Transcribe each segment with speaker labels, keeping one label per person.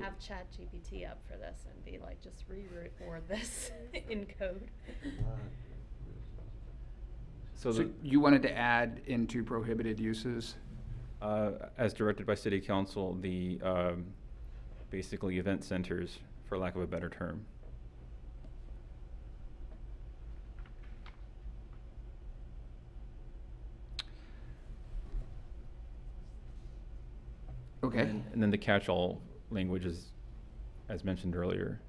Speaker 1: have ChatGPT up for this and be like, just rerecord this in code.
Speaker 2: So,
Speaker 3: So
Speaker 2: the-
Speaker 3: you wanted to add into prohibited uses?
Speaker 2: uh, as directed by city council, the, um, basically event centers, for lack of a better term.
Speaker 3: Okay,
Speaker 2: And and then the catch-all language is, as mentioned earlier.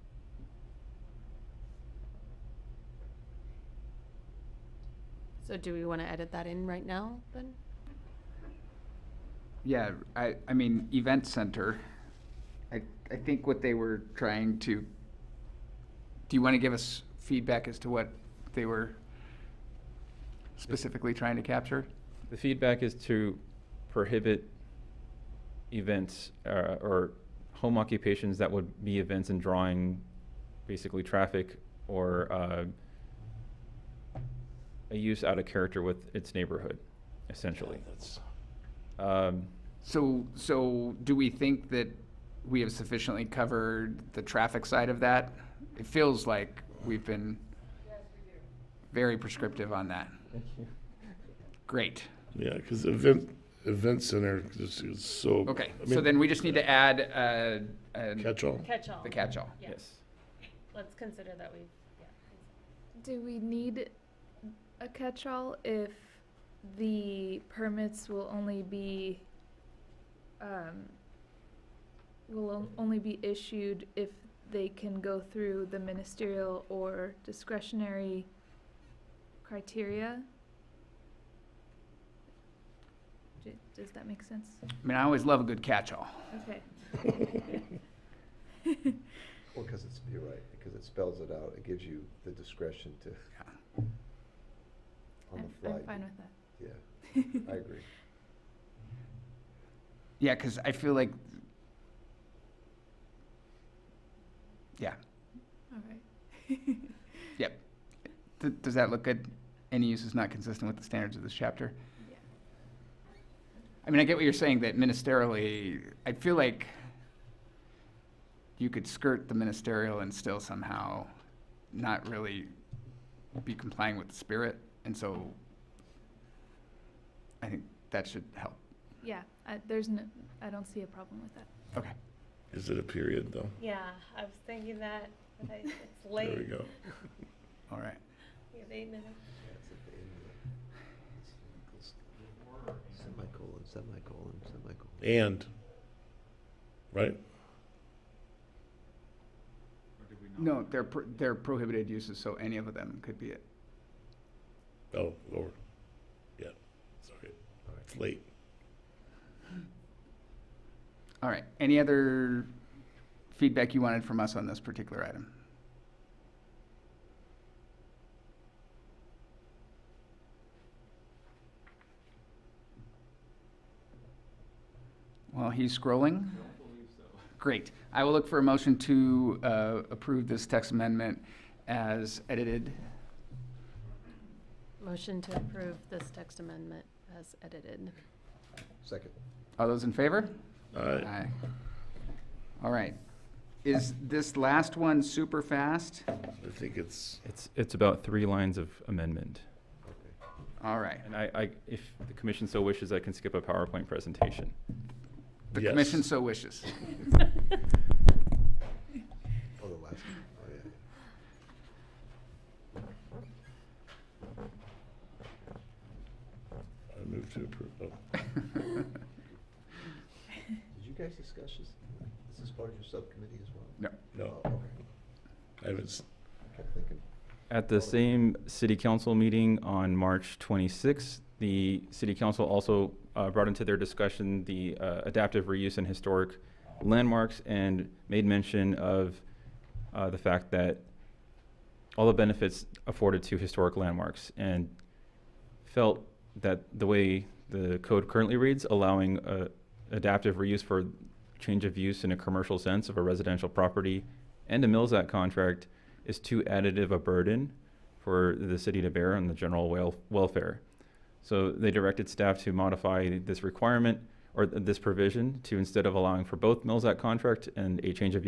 Speaker 1: So do we want to edit that in right now then?
Speaker 3: yeah, I, I mean, event center. I, I think what they were trying to, do you want to give us feedback as to what they were specifically trying to capture?
Speaker 2: The feedback is to prohibit events uh, or home occupations that would be events and drawing basically traffic or uh, a use out of character with its neighborhood, essentially. Um,
Speaker 3: So, so do we think that we have sufficiently covered the traffic side of that? It feels like we've been very prescriptive on that. Great.
Speaker 4: Yeah, because event, event center is is so.
Speaker 3: Okay,
Speaker 4: I
Speaker 3: so
Speaker 4: mean,
Speaker 3: then we just need to add, uh, uh,
Speaker 4: Catch-all.
Speaker 1: Catch-all.
Speaker 3: the catch-all.
Speaker 1: Yeah.
Speaker 2: yes.
Speaker 1: Let's consider that we, yeah.
Speaker 5: Do we need a catch-all if the permits will only be, um, will on- only be issued if they can go through the ministerial or discretionary criteria? Do- Does that make sense?
Speaker 3: I mean, I always love a good catch-all.
Speaker 5: Okay.
Speaker 6: Well, because it's, you're right, because it spells it out, it gives you the discretion to, on
Speaker 5: I'm,
Speaker 6: the fly.
Speaker 5: I'm fine with that.
Speaker 6: Yeah, I agree.
Speaker 3: Yeah, because I feel like, yeah,
Speaker 5: All right.
Speaker 3: Th- does that look good? Any use is not consistent with the standards of this chapter?
Speaker 5: Yeah.
Speaker 3: I mean, I get what you're saying, that ministerially, I feel like you could skirt the ministerial and still somehow not really be complying with the spirit, and so I think that should help.
Speaker 5: Yeah, I, there's no, I don't see a problem with that.
Speaker 3: Okay.
Speaker 4: Is it a period, though?
Speaker 1: Yeah, I was thinking that, but I, it's late.
Speaker 4: There we go.
Speaker 3: All right.
Speaker 1: We have eight minutes.
Speaker 6: Yeah, it's at the end of the- it's equals- Semicolon, semicolon, semicolon.
Speaker 4: And, right?
Speaker 3: No, they're, pro- they're prohibited uses, so any of them could be it.
Speaker 4: Oh, Lord. Yeah, sorry. It's late.
Speaker 3: All right. Any other feedback you wanted from us on this particular item? While he's scrolling? Great. I will look for a motion to uh, approve this text amendment as edited.
Speaker 1: Motion to approve this text amendment as edited.
Speaker 6: Second.
Speaker 3: All those in favor?
Speaker 4: Uh,
Speaker 3: Aye. All right. Is this last one super fast?
Speaker 4: I think it's,
Speaker 2: It's, it's about three lines of amendment.
Speaker 6: Okay.
Speaker 3: All right.
Speaker 2: And I, I, if the commission so wishes, I can skip a PowerPoint presentation.
Speaker 3: The
Speaker 4: Yes.
Speaker 3: commission so wishes.
Speaker 6: Oh, the last one. Oh, yeah.
Speaker 4: I move to approve. Oh,
Speaker 6: Did you guys discuss this? Is this part of your subcommittee as well?
Speaker 3: No.
Speaker 4: No,
Speaker 6: Oh, okay.
Speaker 4: I haven't, s-
Speaker 6: I kept thinking,
Speaker 2: At the same city council meeting on March 26th, the city council also uh, brought into their discussion the uh, adaptive reuse and historic landmarks and made mention of uh, the fact that all the benefits afforded to historic landmarks and felt that the way the code currently reads, allowing uh, adaptive reuse for change of use in a commercial sense of a residential property and a Mills Act contract is too additive a burden for the city to bear on the general wel- welfare. So they directed staff to modify this requirement or th- this provision to instead of allowing for both mills Act contract and a change of